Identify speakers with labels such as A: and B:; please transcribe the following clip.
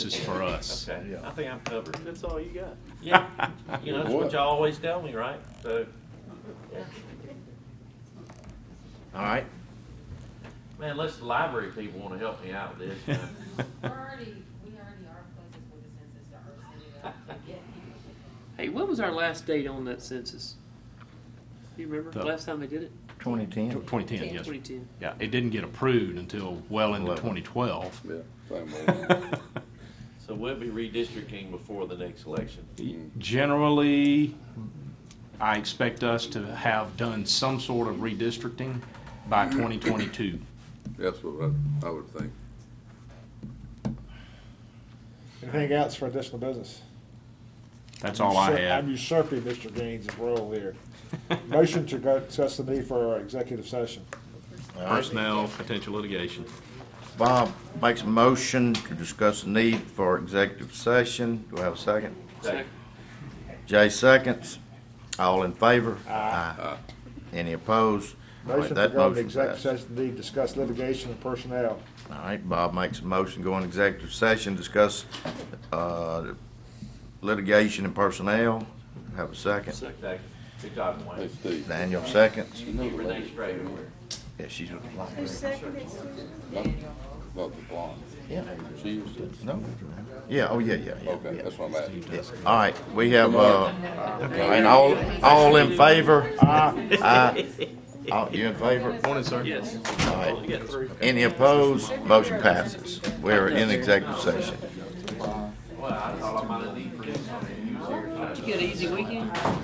A: This is for us.
B: Okay, I think I'm covered.
C: That's all you got. Yeah,
B: You know, that's what y'all always tell me, right? So,
A: All right.
B: man, unless the library people wanna help me out with this. man.
D: We're already, we already are focused with the census to our city to get people.
E: Hey, what was our last date on that census? Do you remember
A: The-
E: last time they did it?
F: 2010.
A: 2010, yes.
E: 2010.
A: Yeah, it didn't get approved until well into
F: Eleven.
A: 2012.
G: Yeah, same way.
B: So we'll be redistricting before the next election.
A: Generally, I expect us to have done some sort of redistricting by 2022.
G: That's what I, I would think.
H: Anything else for additional business?
A: That's all I
H: Usur- I'm
A: have.
H: usurping Mr. Gaines' role here. Motion to go access the need for our executive session.
F: All right.
A: Personnel, potential litigation.
F: Bob makes a motion to discuss the need for executive session. Do I have a second?
B: Second.
F: Jay seconds. All in favor? Aye. Any opposed? All right,
H: Motion to
F: that
H: go into
F: motion
H: executive
F: passed.
H: session to need discuss litigation and personnel.
F: All right, Bob makes a motion, go into executive session, discuss uh, litigation and personnel. Have a second.
B: Second. Good job,
G: Hey,
B: Wayne.
G: Steve.
F: Daniel seconds.
G: You know the
B: Renee
G: lady,
B: Strader, where-
F: Yeah, she's.
G: not, not the blonde.
F: Yeah.
G: She used to.
F: No. Yeah, oh, yeah, yeah, yeah.
G: Okay,
F: yeah.
G: that's what I'm asking.
F: Yeah. All right, we have, uh, and all, all in favor?
H: Aye.
F: Aye. All, you in favor?
A: Morning, sir.
E: Yes.
F: All right.
E: Get through.
F: Any opposed? Motion passes. We are in executive session.
B: Well, I thought I might have needed for this.
E: Did you get an easy weekend?